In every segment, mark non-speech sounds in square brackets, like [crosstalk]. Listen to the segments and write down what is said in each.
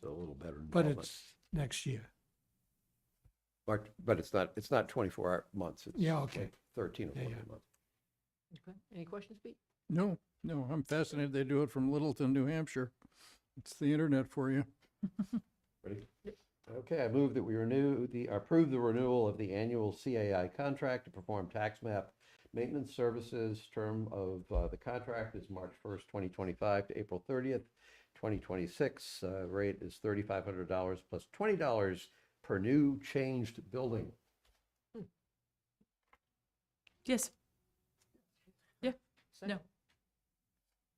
so a little better. but involvement. it's next year. But, but it's not, it's not 24 hour- months. it's Yeah, okay. 13 or Yeah, 14 yeah. months. Okay. Any questions, Pete? No, no, I'm fascinated. They do it from Littleton, New Hampshire. It's the internet for you. Ready? Okay, I move that we renew the, approve the renewal of the annual CAI contract to perform tax map maintenance services. Term of uh, the contract is March 1st, 2025 to April 30th, 2026. Uh, Rate is $3,500 plus $20 per new changed building. Yes. Yeah, no. Second.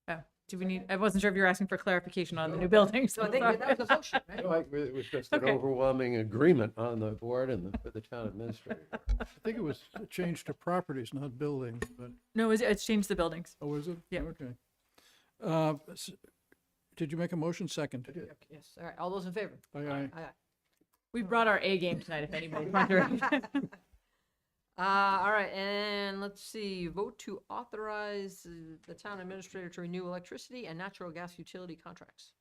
Oh, do we need, I wasn't sure if you were asking for clarification on the new building, so. Oh, [laughs] So I think that was a motion, right? No, I- It was just an Okay. overwhelming agreement on the board and the- the [laughs] town administrator. I think it was changed to properties, not buildings, but, No, it's, it's changed the buildings. oh, is it? Yeah. Okay. Uh, s- Did you make a motion second? Okay, Yes, all right, all those in favor? Aye, aye. Aye, aye. We brought our A game tonight, [laughs] if anybody's wondering. Uh, all right, and let's see, vote to authorize uh, the town administrator to renew electricity and natural gas utility contracts.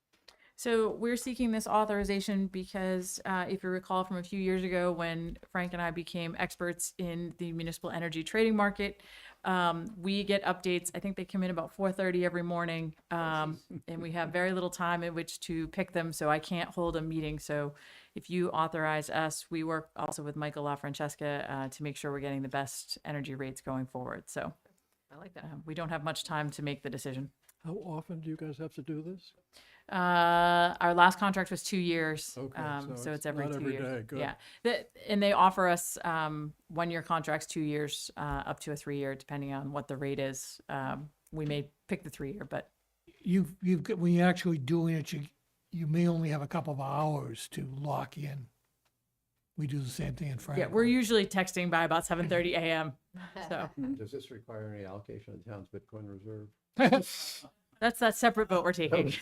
So we're seeking this authorization because uh, if you recall from a few years ago when Frank and I became experts in the municipal energy trading market, um, we get updates. I think they come in about 4:30 every morning, um, and we have very little time in which to pick them. So I can't hold a meeting. So if you authorize us, we work also with Michael LaFrancesca uh, to make sure we're getting the best energy rates going forward. So I like that. uh, we don't have much time to make the decision. How often do you guys have to do this? Uh, our last contract was two years. Okay, Um, so so it's it's every not two every years. day, good. Yeah. That, and they offer us, um, one-year contracts, two years, uh, up to a three-year, depending on what the rate is. Um, we may pick the three-year, but You've, you've, got- when you're actually doing it, you, you may only have a couple of hours to lock in. We do the same thing in yeah, Franklin. we're usually texting by about seven thirty AM. So Does this require any allocation of the town's Bitcoin reserve? that's that separate vote we're taking.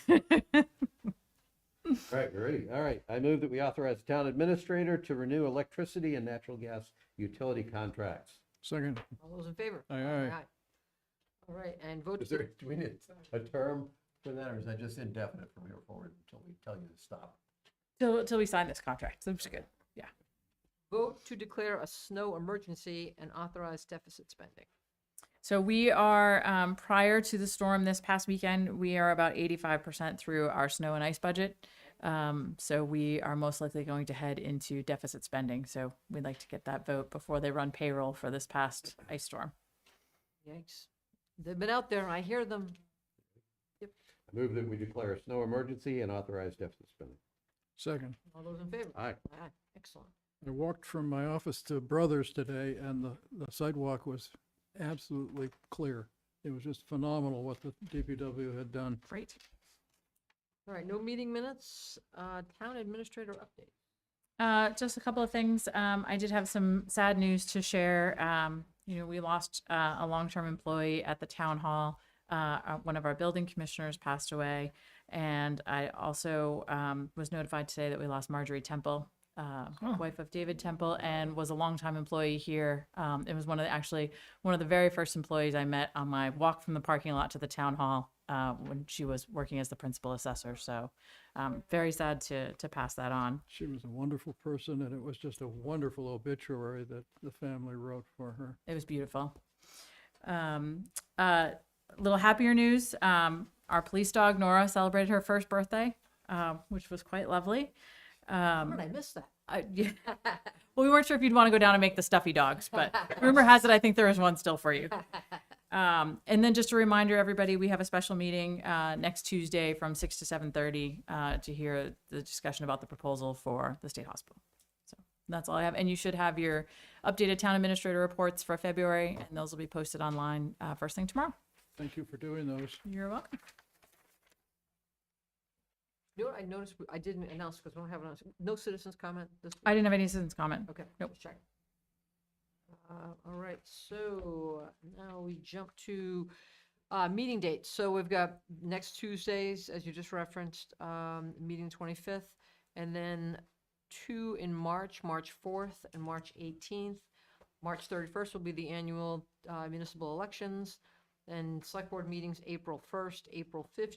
All right, we're ready. All right, I move that we authorize the town administrator to renew electricity and natural gas utility contracts. Second, All those in favor? Aye, aye. All right, and vote, Is there, do we need a term for that, or is that just indefinite from here forward until we tell you to stop? [laughs] Till, till we sign this contract. So it's good. Yeah. vote to declare a snow emergency and authorize deficit spending. So we are, um, prior to the storm this past weekend, we are about eighty-five percent through our snow and ice budget. Um, so we are most likely going to head into deficit spending. So we'd like to get that vote before they run payroll for this past ice storm. Yikes. They've been out there, I hear them. I move that we declare a snow emergency and authorize deficit spending. second. All those in favor? Aye. Aye, excellent. I walked from my office to Brothers today and the, the sidewalk was absolutely clear. It was just phenomenal what the DPW had done. Great. All right, no meeting minutes, uh, town administrator update. Uh, just a couple of things. Um, I did have some sad news to share. Um, you know, we lost uh, a long-term employee at the town hall. Uh, uh, one of our building commissioners passed away, and I also um, was notified today that we lost Marjorie Temple, uh, wife of David Temple, and was a longtime employee here. Um, it was one of the, actually one of the very first employees I met on my walk from the parking lot to the town hall uh, when she was working as the principal assessor. So, um, very sad to to pass that on. She was a wonderful person, and it was just a wonderful obituary that the family wrote for her. It was beautiful. Um, uh, little happier news. Um, our police dog Nora celebrated her first birthday, um, which was quite lovely. How did I miss that? Uh, yeah. well, we weren't sure if you'd want to go down and make the stuffy dogs, but rumor has it I think there is one still for you. Um, and then just a reminder, everybody, we have a special meeting uh, next Tuesday from six to seven thirty uh, to hear the discussion about the proposal for the state hospital. So that's all I have, and you should have your updated town administrator reports for February, and those will be posted online uh, first thing tomorrow. Thank you for doing those. You're welcome. You know what I noticed, we- I didn't announce because we don't have an, announce- no citizens comment this week? I didn't have any citizens comment. Okay, Nope. just check. Uh, All right, so now we jump to uh, meeting dates. So we've got next Tuesdays, as you just referenced, um, meeting 25th, and then two in March, March 4th and March 18th. March 31st will be the annual uh, municipal elections, and select board meetings April 1st, April 15th,